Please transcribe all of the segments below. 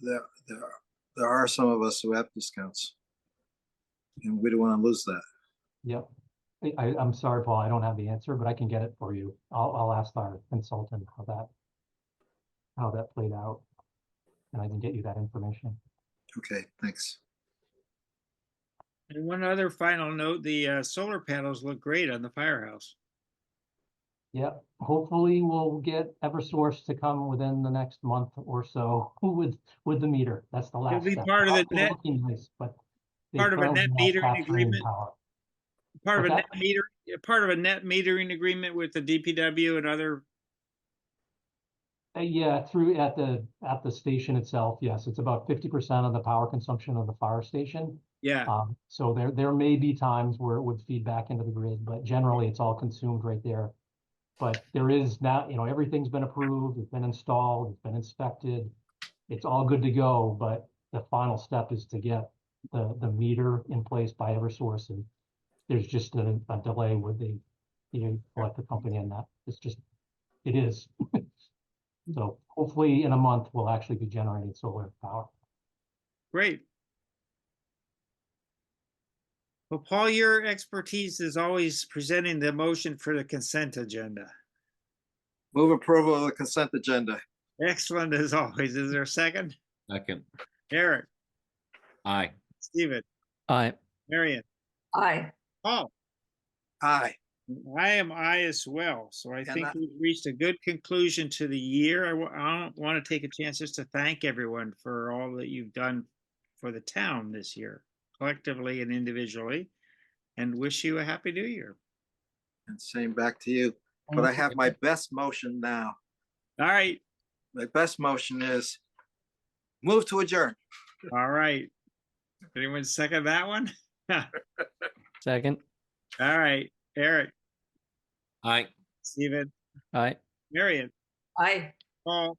there, there, there are some of us who have discounts. And we don't want to lose that. Yep. I, I, I'm sorry, Paul, I don't have the answer, but I can get it for you. I'll, I'll ask our consultant how that, how that played out. And I can get you that information. Okay, thanks. And one other final note, the uh, solar panels look great on the firehouse. Yep, hopefully we'll get Eversource to come within the next month or so with, with the meter. That's the last be step. part of the They're net- looking nice, but they part of a currently net have metering capturing agreement. power. Part of Uh-huh. Okay. a net meter, yeah, part of a net metering agreement with the DPW and other, Uh, Yeah, through at the, at the station itself, yes, it's about fifty percent of the power consumption of the fire station. yeah, Uh-huh. Um, so there, there may be times where it would feed back into the grid, but generally it's all consumed right there. But there is now, you know, everything's been approved, it's been installed, it's been inspected. It's all good to go, but the final step is to get the, the meter in place by Eversource and there's just a, a delay with the, the electric company and that, it's just, it is. So hopefully in a month, we'll actually be generating solar power. great. Well, Paul, your expertise is always presenting the motion for the consent agenda. Move approval of the consent agenda. Excellent as always. Is there a second? Second, Eric, aye. Steven, Aye. Marion, Aye, Paul. Aye. I am I as well, so I And think I- we've reached a good conclusion to the year. I wa- I don't want to take a chance just to thank everyone for all that you've done for the town this year, collectively and individually, and wish you a happy new year. And same back to you. But I have my best motion now. All right, My best motion is move to adjourn. all right. Anyone second that one? Second. All right, Eric, Aye. Stephen, Aye. Marion, aye. Paul,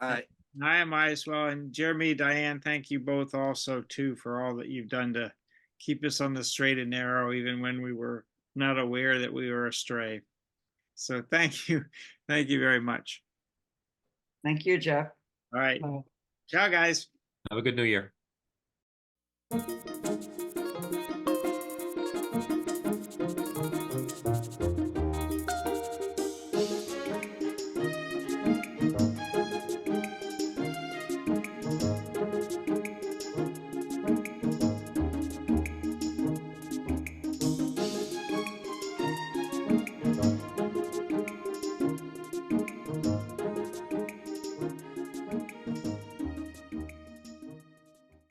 Aye. And I am I as well. And Jeremy, Diane, thank you both also too for all that you've done to keep us on the straight and narrow, even when we were not aware that we were astray. So thank you. Thank you very much. Thank you, Jeff. All right. Bye. Ciao, guys. Have a good new year.